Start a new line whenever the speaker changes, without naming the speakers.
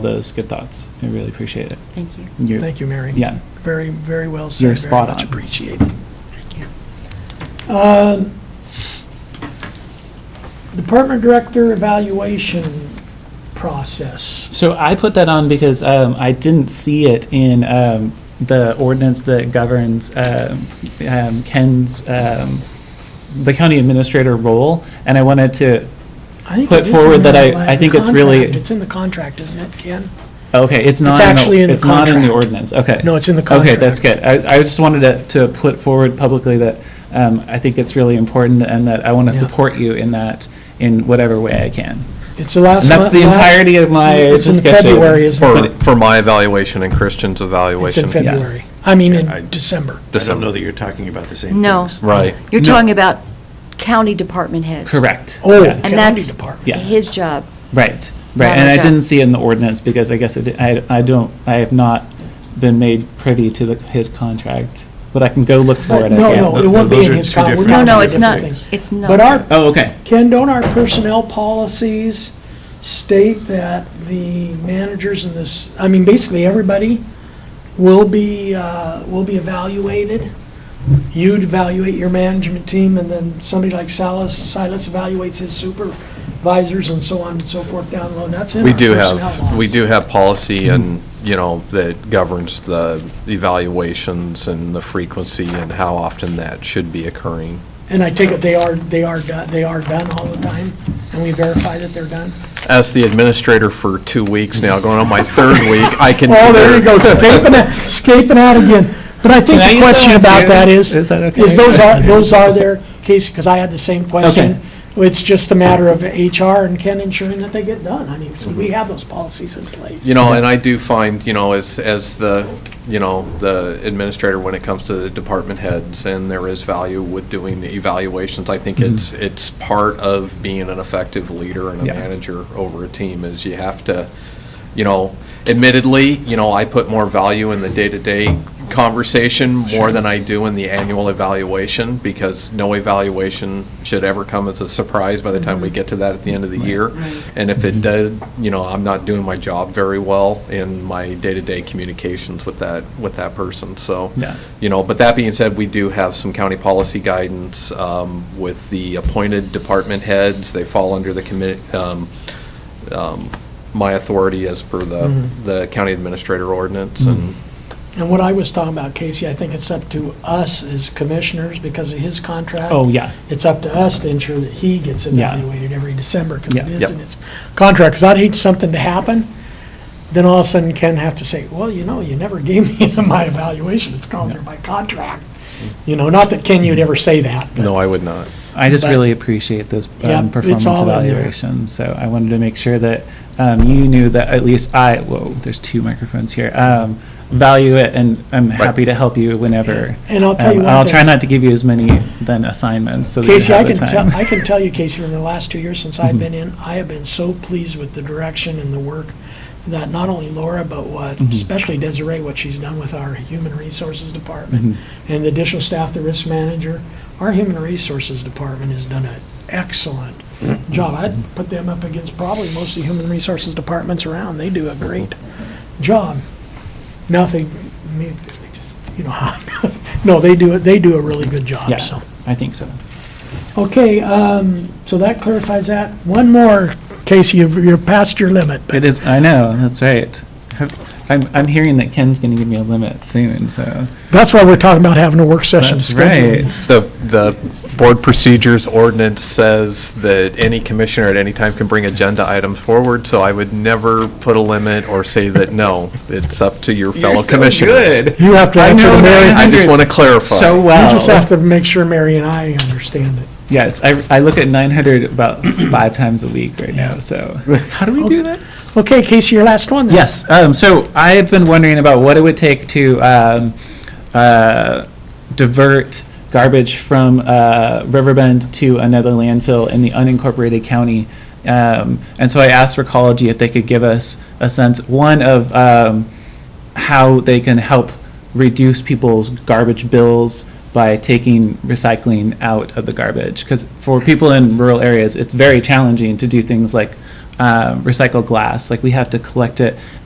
those good thoughts. I really appreciate it.
Thank you.
You,
Thank you, Mary.
Yeah.
Very, very well said.
You're spot
Very much
on.
appreciated.
Thank you.
Um, Department Director Evaluation Process.
So I put that on because um, I didn't see it in um, the ordinance that governs um, um, Ken's um, the county administrator role, and I wanted to.
I think
Put
it is
forward
in
that
the
I-
la-
I think it's
contract.
really-
It's in the contract, isn't it, Ken?
Okay, it's not.
actually in the
it's not in the
contract.
ordinance. Okay.
No, it's in the
Okay, that's good. I, I just wanted to, to put forward publicly that um, I think it's really important, and that I want to
Yeah.
support you in that in whatever way I can.
It's the last
And
month.
that's the
last-
entirety of my
It's in
discussion.
February, isn't it?
But
For,
it-
for my evaluation and Christian's
It's
evaluation.
in February. I mean,
Yeah, I-
in December.
I don't know
December.
that you're talking about the same
No.
things.
Right.
You're
No.
talking about county department heads.
Correct.
Oh,
Yeah.
And
county
that's
department.
Yeah.
his job.
Right, right,
Not
and
our
I
job.
didn't see it in the ordinance, because I guess it di- I, I don't, I have not been made privy to the, his contract, but I can go look for it
But no, no,
again.
it won't be
Those
in
are
his
two
contract.
different-
No, no,
Yeah,
it's not,
different things.
it's not.
But our,
Oh, okay,
Ken, don't our personnel policies state that the managers in this, I mean, basically, everybody will be, uh, will be evaluated? You'd evaluate your management team, and then somebody like Silas, Silas evaluates his supervisors and so on and so forth down low, and that's in
We
our
do
personnel laws.
have, we do have policy and, you know, that governs the evaluations and the frequency and how often that should be occurring.
And I take it they are, they are, done- they are done all the time, and we verify that they're done?
As the administrator for two weeks now, going on my third week, I can.
Oh, there you
either-
go, scraping out, scraping out again. But I
Can
think
I
the
use that
question
one
about
too?
that is,
Is
is
that okay?
those are, those are their case, because I had the same question. It's just a matter of HR and Ken ensuring that they get done. I mean, so we have those policies in place.
You know, and I do find, you know, as, as the, you know, the administrator, when it comes to the department heads, and there is value with doing the evaluations, I think it's, it's part of being an effective leader and a
Yeah.
manager over a team, is you have to, you know, admittedly, you know, I put more value in the day-to-day conversation more than I do in the annual evaluation, because no evaluation should ever come as a surprise by the time we get to that at the end of the year. And if it does, you know, I'm not doing my job very well in my day-to-day communications with that, with that person, so.
Yeah.
You know, but that being said, we do have some county policy guidance um, with the appointed department heads. They fall under the commit, um, um, my authority as per the, the county administrator ordinance and,
And what I was talking about, Casey, I think it's up to us as commissioners, because of his contract.
oh, yeah,
It's up to us to ensure that he gets
Yeah.
evaluated every December, because it
Yeah.
is
Yep.
in its contract, because I'd hate something to happen, then all of a sudden Ken have to say, well, you know, you never gave me my evaluation, it's called there by contract. You know, not that Ken, you'd ever say that,
no,
but
I would not.
I just
But-
really appreciate this
Yeah,
um,
it's
performance
all in there.
evaluation, so I wanted to make sure that um, you knew that at least I, whoa, there's two microphones here, um, value it, and I'm happy to help you whenever.
And I'll tell
Um,
you one
I'll try
thing.
not to give you as many then assignments, so that you
Casey, I
have the
can tell,
time. Mm-hmm.
I can tell you, Casey, from the last two years since I've been in, I have been so pleased with the direction and the work that not only Laura, but what,
Mm-hmm.
especially Desiree, what she's done with our human resources department
Mm-hmm.
and the additional staff, the risk manager. Our human resources department has done an excellent
Mm-hmm.
job. I'd put them up against probably most of the human resources departments around. They do a great job. Now, if they, maybe if they just, you know, how no, they do, it. they do a really good
Yeah,
job, so.
I think so.
Okay, um, so that clarifies that. One more, Casey, you've- you're past your limit.
It is, I know, that's right. I'm, I'm hearing that Ken's going to give me a limit soon, so.
That's why we're talking about having a work session scheduled.
The, the board procedures ordinance says that any commissioner at any time can bring agenda items forward, so I would never put a limit or say that, no, it's up to your fellow commissioners.
You have to
I
answer
know
to Mary.
that.
I just want to clarify.
So
You
well.
just have to make sure Mary and I understand it.
Yes, I, I look at 900 about five times a week right now, so. How do we do this?
Okay, Casey, your last one then.
Yes. Um, so I have been wondering about what it would take to um, uh, divert garbage from uh, Riverbend to another landfill in the unincorporated county. Um, and so I asked Recology if they could give us a sense, one, of um, how they can help reduce people's garbage bills by taking recycling out of the garbage. Because for people in rural areas, it's very challenging to do things like uh, recycled glass. Like we have to collect it